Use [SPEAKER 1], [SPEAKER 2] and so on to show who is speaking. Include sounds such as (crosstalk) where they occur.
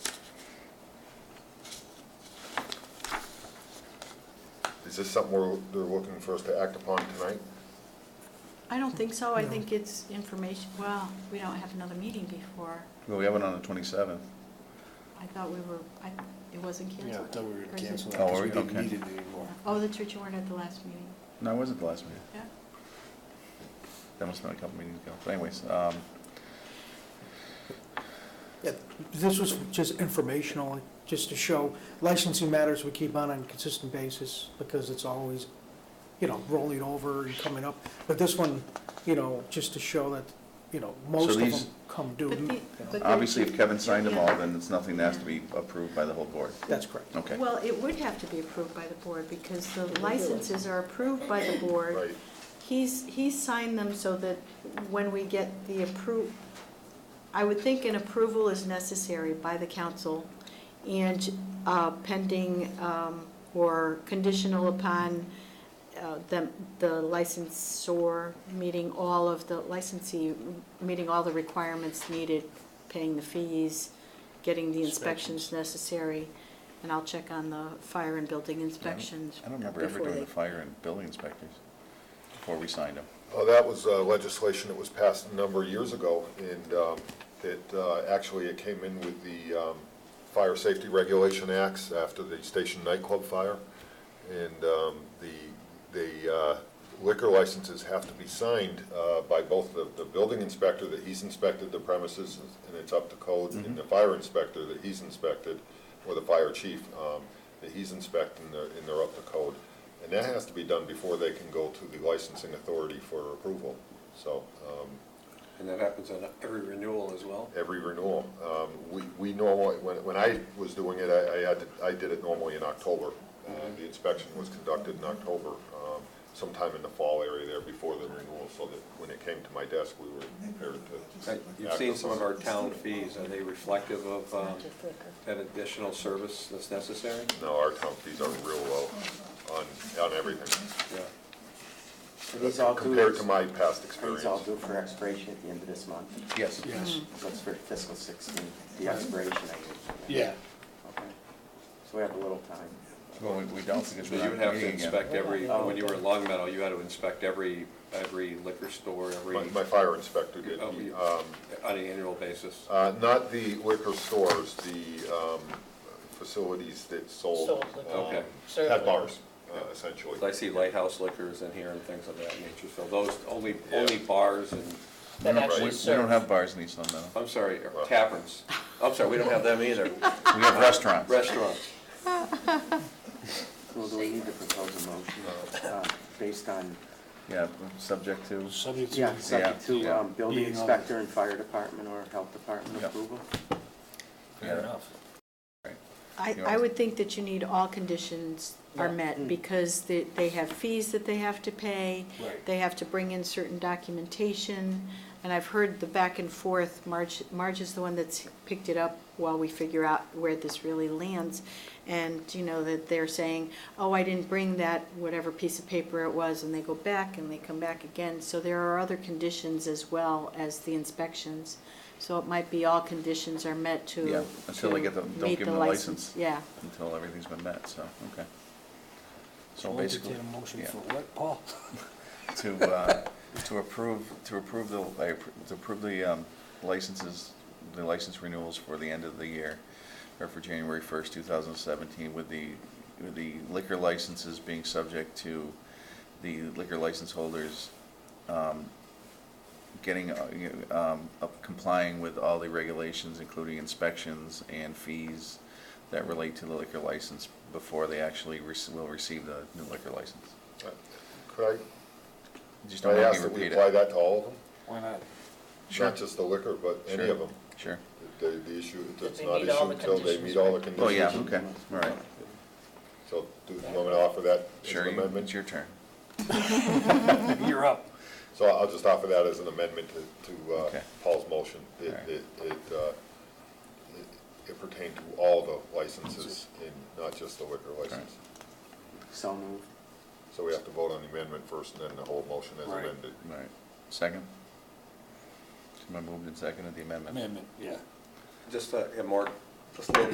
[SPEAKER 1] Is this something we're, they're looking for us to act upon tonight?
[SPEAKER 2] I don't think so, I
[SPEAKER 3] No.
[SPEAKER 2] think it's information, well, we don't have another meeting before.
[SPEAKER 4] Well, we have one on the twenty-seventh.
[SPEAKER 2] I thought we were, I, it wasn't
[SPEAKER 3] Yeah, I
[SPEAKER 2] canceled.
[SPEAKER 3] thought we were
[SPEAKER 2] Or is it-
[SPEAKER 3] gonna cancel that
[SPEAKER 4] Oh,
[SPEAKER 3] because
[SPEAKER 4] are
[SPEAKER 3] we
[SPEAKER 4] we?
[SPEAKER 3] didn't
[SPEAKER 4] Okay.
[SPEAKER 3] need it anymore.
[SPEAKER 2] Oh, that's right, you weren't at the last meeting,
[SPEAKER 4] No, it wasn't the last meeting.
[SPEAKER 2] yeah.
[SPEAKER 4] That must have been a couple meetings ago. But anyways, um,
[SPEAKER 5] Yeah, This was just informational, just to show licensing matters we keep on on a consistent basis because it's always, you know, rolling over and coming up. But this one, you know, just to show that, you know, most of
[SPEAKER 4] these-
[SPEAKER 5] them come due.
[SPEAKER 2] But the-
[SPEAKER 5] you know.
[SPEAKER 2] but-
[SPEAKER 4] obviously, if Kevin signed them all, then it's nothing that has to be approved by the whole board.
[SPEAKER 5] That's correct.
[SPEAKER 4] Okay.
[SPEAKER 2] Well, it would have to be approved by the board because the licenses are approved by the board.
[SPEAKER 1] Right,
[SPEAKER 2] He's, he's signed them so that when we get the appro, I would think an approval is necessary by the council and uh, pending um, or conditional upon uh, the, the licensor meeting all of the licensee, meeting all the requirements needed, paying the fees, getting the inspections necessary. And I'll check on the fire and building inspections.
[SPEAKER 4] I don't remember ever
[SPEAKER 2] before
[SPEAKER 4] doing
[SPEAKER 2] they-
[SPEAKER 4] the fire and building inspectors before we signed them.
[SPEAKER 1] Uh, that was uh, legislation that was passed a number of years ago, and um, it, uh, actually, it came in with the um, Fire Safety Regulation Acts after the Station nightclub fire, and um, the, the uh, liquor licenses have to be signed uh, by both the, the building inspector that he's inspected the premises, and it's up to code, and the fire inspector that he's inspected, or the fire chief um, that he's inspecting, and they're- and they're up to code. And that has to be done before they can go to the licensing authority for approval. So um,
[SPEAKER 6] And that happens on every renewal as well?
[SPEAKER 1] every renewal, um, we we normally, when when I was doing it, I I had, to- I did it normally in October. Uh,
[SPEAKER 6] Mm-hmm.
[SPEAKER 1] The inspection was conducted in October, um, sometime in the fall area there before the renewal, so that when it came to my desk, we were prepared to.
[SPEAKER 6] Uh, You've
[SPEAKER 1] act
[SPEAKER 6] seen
[SPEAKER 1] upon
[SPEAKER 6] some
[SPEAKER 1] it.
[SPEAKER 6] of our town fees, are they reflective of um,
[SPEAKER 2] Just liquor.
[SPEAKER 6] that additional service that's necessary?
[SPEAKER 1] No, our town fees are real low on, on everything,
[SPEAKER 6] Yeah.
[SPEAKER 7] These all do,
[SPEAKER 1] compared to
[SPEAKER 7] are
[SPEAKER 1] my past experience.
[SPEAKER 7] these all due for expiration at the end of this month?
[SPEAKER 4] Yes.
[SPEAKER 3] Yes,
[SPEAKER 7] That's for fiscal 16, the expiration, I guess.
[SPEAKER 3] yeah.
[SPEAKER 7] Okay. So we have a little time.
[SPEAKER 4] Well, we- we don't because
[SPEAKER 6] So
[SPEAKER 4] we're
[SPEAKER 6] you
[SPEAKER 4] not
[SPEAKER 6] would have to
[SPEAKER 4] meeting again.
[SPEAKER 6] inspect every,
[SPEAKER 7] Oh,
[SPEAKER 6] when you were
[SPEAKER 7] okay.
[SPEAKER 6] in Long Meadow, you had to inspect every, every liquor store, every,
[SPEAKER 1] My
[SPEAKER 6] on
[SPEAKER 1] my fire inspector did,
[SPEAKER 6] Oh,
[SPEAKER 1] he,
[SPEAKER 6] yeah.
[SPEAKER 1] um,
[SPEAKER 6] an annual basis.
[SPEAKER 1] Uh, Not the liquor stores, the um, facilities that sold.
[SPEAKER 8] Sold liquor.
[SPEAKER 1] um,
[SPEAKER 6] Okay.
[SPEAKER 1] At bars, uh, essentially.
[SPEAKER 6] I see Lighthouse Liquors in here and things of that nature, so those, only,
[SPEAKER 1] Yeah.
[SPEAKER 6] only bars and,
[SPEAKER 8] That
[SPEAKER 4] We don't-
[SPEAKER 8] actually
[SPEAKER 4] we- We
[SPEAKER 8] serve.
[SPEAKER 4] don't have bars in East Long Meadow.
[SPEAKER 6] I'm sorry, er, taverns. I'm sorry, we don't have them either.
[SPEAKER 4] We have restaurants.
[SPEAKER 6] Restaurants.
[SPEAKER 7] Well, do we need to propose a motion uh, based on,
[SPEAKER 4] Yeah, subject to,
[SPEAKER 3] Subject
[SPEAKER 7] yeah,
[SPEAKER 3] to,
[SPEAKER 7] subject to
[SPEAKER 4] yeah.
[SPEAKER 7] um, building
[SPEAKER 3] Being all-
[SPEAKER 7] inspector and fire department or health department
[SPEAKER 4] Yeah.
[SPEAKER 7] approval?
[SPEAKER 4] Fair
[SPEAKER 3] enough.
[SPEAKER 2] I,
[SPEAKER 4] You
[SPEAKER 2] I
[SPEAKER 4] know?
[SPEAKER 2] would think that you need all conditions are met, because they, they have fees that they have to pay.
[SPEAKER 3] Right.
[SPEAKER 2] They have to bring in certain documentation, and I've heard the back and forth, Marge, Marge is the one that's picked it up while we figure out where this really lands. And, you know, that they're saying, oh, I didn't bring that, whatever piece of paper it was, and they go back and they come back again. So there are other conditions as well as the inspections. So it might be all conditions are met to.
[SPEAKER 4] Yeah, until they
[SPEAKER 2] to
[SPEAKER 4] get the- don't
[SPEAKER 2] meet
[SPEAKER 4] give them the license.
[SPEAKER 2] Yeah.
[SPEAKER 4] until everything's been met, so, okay. So
[SPEAKER 3] I'll
[SPEAKER 4] basically.
[SPEAKER 3] entertain a motion
[SPEAKER 4] yeah.
[SPEAKER 3] for what, Paul?
[SPEAKER 4] (laughs) to, uh, to approve, to approve the, like, to approve the um, licenses, the license renewals for the end of the year, or for January 1st, 2017, with the, with the liquor licenses being subject to the liquor license holders um, getting, uh, you know, um, up- complying with all the regulations, including inspections and fees that relate to the liquor license before they actually rec- will receive the new liquor license.
[SPEAKER 1] Uh, Could
[SPEAKER 4] Just
[SPEAKER 1] I,
[SPEAKER 4] don't
[SPEAKER 1] I
[SPEAKER 4] make
[SPEAKER 1] ask
[SPEAKER 4] me
[SPEAKER 1] that we
[SPEAKER 4] repeat it.
[SPEAKER 1] apply that to all of them?
[SPEAKER 3] Why not?
[SPEAKER 1] Not just the liquor, but any
[SPEAKER 4] Sure.
[SPEAKER 1] of them?
[SPEAKER 4] Sure.
[SPEAKER 1] The, the issue, it's
[SPEAKER 8] they
[SPEAKER 1] not
[SPEAKER 8] meet
[SPEAKER 1] issued
[SPEAKER 8] all the
[SPEAKER 1] until they
[SPEAKER 8] conditions,
[SPEAKER 1] meet all the
[SPEAKER 8] right?
[SPEAKER 1] conditions.
[SPEAKER 4] Oh, yeah, okay, all right.
[SPEAKER 1] So do you want me to offer that as
[SPEAKER 4] Sure,
[SPEAKER 1] an
[SPEAKER 4] you- it's
[SPEAKER 1] amendment?
[SPEAKER 4] your turn.
[SPEAKER 3] You're up.
[SPEAKER 1] So I'll just offer that as an amendment to, to uh,
[SPEAKER 4] Okay.
[SPEAKER 1] Paul's motion. It,
[SPEAKER 4] Alright.
[SPEAKER 1] it, it, uh, it- it pertained to all the licenses and not just the liquor license.
[SPEAKER 7] So moved.
[SPEAKER 1] So we have to vote on the amendment first and then the whole motion as
[SPEAKER 3] Right.
[SPEAKER 1] amended.
[SPEAKER 4] All right, second? Somebody moved and seconded the amendment.
[SPEAKER 3] Amendment, yeah.
[SPEAKER 6] Just, uh, and Mark, just a little